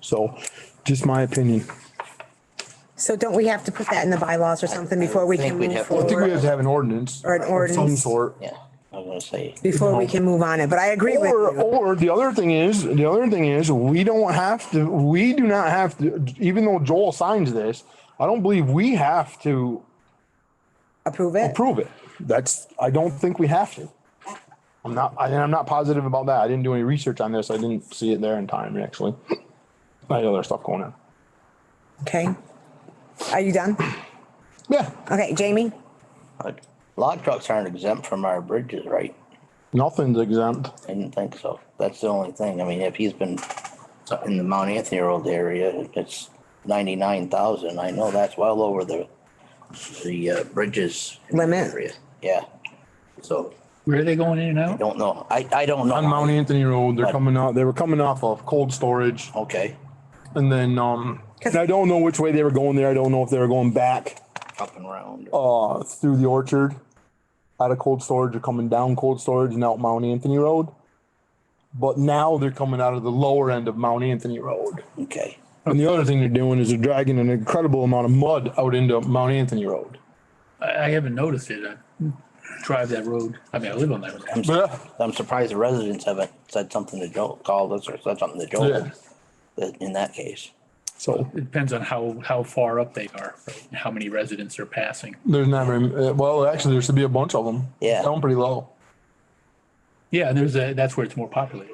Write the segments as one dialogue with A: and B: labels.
A: So just my opinion.
B: So don't we have to put that in the bylaws or something before we can
C: think we'd
B: move
C: have to- I
A: I think we
B: forward?
A: have to have an ordinance.
B: Or an
A: of Some
B: ordinance.
A: sort.
C: Yeah, I was gonna say,
B: Before we can move on it, but I agree with
A: Or,
B: you.
A: or the other thing is, the other thing is, we don't have to, we do not have to, even though Joel signs this, I don't believe we have to
B: Approve it?
A: approve it. That's, I don't think we have to. I'm not, I, I'm not positive about that. I didn't do any research on this. I didn't see it there in time, actually. I had other stuff going on.
B: Okay. Are you done?
A: Yeah,
B: Okay, Jamie?
C: uh, log trucks aren't exempt from our bridges, right?
A: nothing's exempt.
C: I didn't think so. That's the only thing. I mean, if he's been in the Mount Anthony Road area, it's ninety-nine thousand. I know that's well over the, the uh, bridges. in the
B: Limit.
C: area. Yeah. So,
D: Where are they going in and out?
C: don't know. I, I don't know.
A: On Mount Anthony Road, they're
C: Right.
A: coming out, they were coming off of cold storage.
C: Okay,
A: And then, um,
B: 'Cause-
A: and I don't know which way they were going there. I don't know if they were going back,
C: up and round.
A: uh, through the orchard out of cold storage or coming down cold storage and out Mount Anthony Road. But now they're coming out of the lower end of Mount Anthony Road.
C: Okay.
A: And the other thing they're doing is they're dragging an incredible amount of mud out into Mount Anthony Road.
D: I, I haven't noticed it. I drive that road. I mean, I live on that road.
A: Yeah.
C: I'm surprised the residents haven't said something to Joe, called us or said something to
A: Yeah.
C: Joe. that- In that case,
A: So
D: It depends on how, how far up they are, right, and how many residents are passing.
A: there's not very, uh, well, actually, there should be a bunch of them.
C: Yeah.
A: Down pretty low.
D: Yeah, and there's a, that's where it's more populated.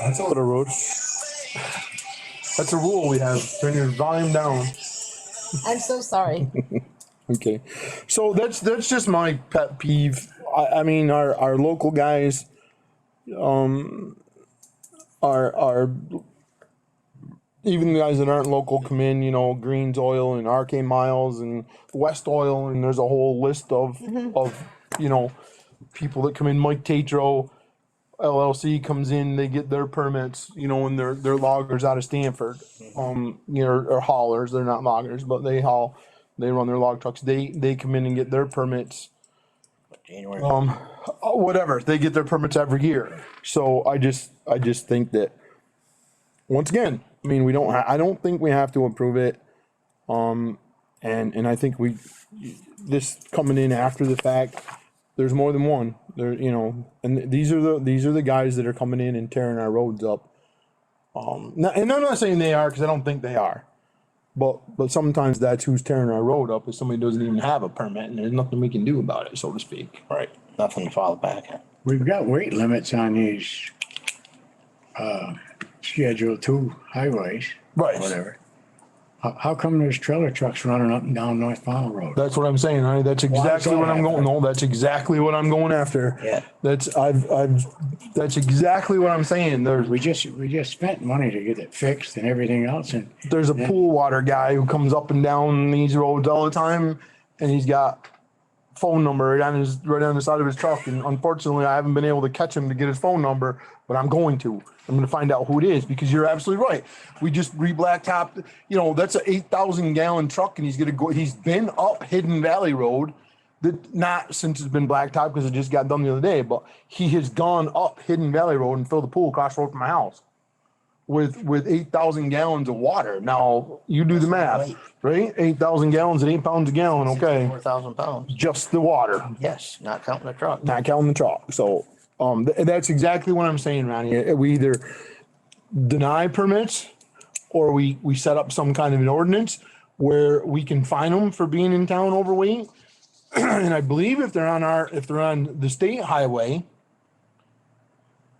A: That's a little road. That's a rule we have. Turn your volume down.
B: I'm so sorry.
A: Okay, so that's that's just my pet peeve. I, I mean, our our local guys, um, are are even the guys that aren't local come in. You know, Greens Oil and RK Miles and West Oil, and there's a whole list of
B: Mm-hmm.
A: of you know people that come in. Mike Tatro. LLC comes in, they get their permits, you know, and they're, they're loggers out of Stanford. Um, you know, or haulers, they're not loggers, but they haul, they run their log trucks. They, they come in and get their permits,
C: January,
A: oh, whatever, they get their permits every year. So I just, I just think that, once again, I mean, we don't, ha- I don't think we have to approve it. Um, and, and I think we, this coming in after the fact, there's more than one. There, you know, and these are the these are the guys that are coming in and tearing our roads up. Um, no- and I'm not saying they are because I don't think they are, but but sometimes that's who's tearing our road up is somebody who doesn't even have a permit and there's nothing we can do about it, so to speak.
C: right, nothing to fall back on.
E: We've got weight limits on these, uh, Schedule Two highways.
A: Right.
E: Whatever. How, how come there's trailer trucks running up and down North Powell Road?
A: That's what I'm saying, honey. That's
E: is
A: exactly what
E: that
A: I'm going. No, that's exactly what I'm going after.
C: Yeah.
A: That's I've I've that's exactly what I'm saying. There's
E: We just, we just spent money to get it fixed and everything else and
A: there's a pool water guy who comes up and down these roads all the time, and he's got phone number right on his right on the side of his truck. And unfortunately, I haven't been able to catch him to get his phone number, but I'm going to. I'm going to find out who it is because you're absolutely right. We just re-blacktopped. You know, that's an eight thousand gallon truck, and he's going to go. He's been up Hidden Valley Road. That not since it's been blacktop because it just got done the other day, but he has gone up Hidden Valley Road and filled the pool across the road from my house with with eight thousand gallons of water. Now you do the math, right? Eight thousand gallons at eight pounds a gallon. Okay,
C: Four thousand pounds,
A: just the water,
C: yes, not counting the truck.
A: not counting the chalk. So um, th- that's exactly what I'm saying, Ronnie. Uh, We either deny permits or we we set up some kind of an ordinance where we can fine them for being in town overweight. and I believe if they're on our if they're on the state highway.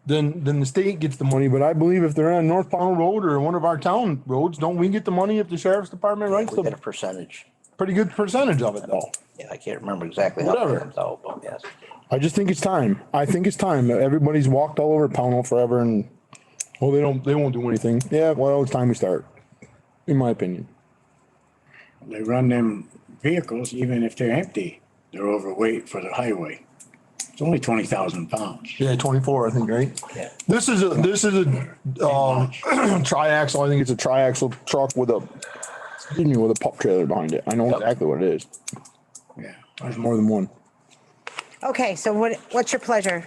A: Then, then the state gets the money, but I believe if they're on North Pownell Road or one of our town roads, don't we get the money if the sheriff's department writes
C: We get a
A: the
C: percentage.
A: pretty good percentage of it though?
C: Yeah, I can't remember exactly how
A: Whatever.
C: it comes out, but yes.
A: I just think it's time. I think it's time. Everybody's walked all over Pownell forever and, well, they don't, they won't do anything. Yeah, well, it's time we start, in my opinion.
E: they run them vehicles, even if they're empty, they're overweight for the highway. It's only twenty thousand pounds.
A: Yeah, twenty-four, I think, right?
C: Yeah.
A: This is a, this is a, um, triaxle. I think it's a triaxle truck with a, excuse me, with a pup trailer behind it. I know exactly what it is.
E: Yeah.
A: There's more than one.
B: Okay, so what, what's your pleasure?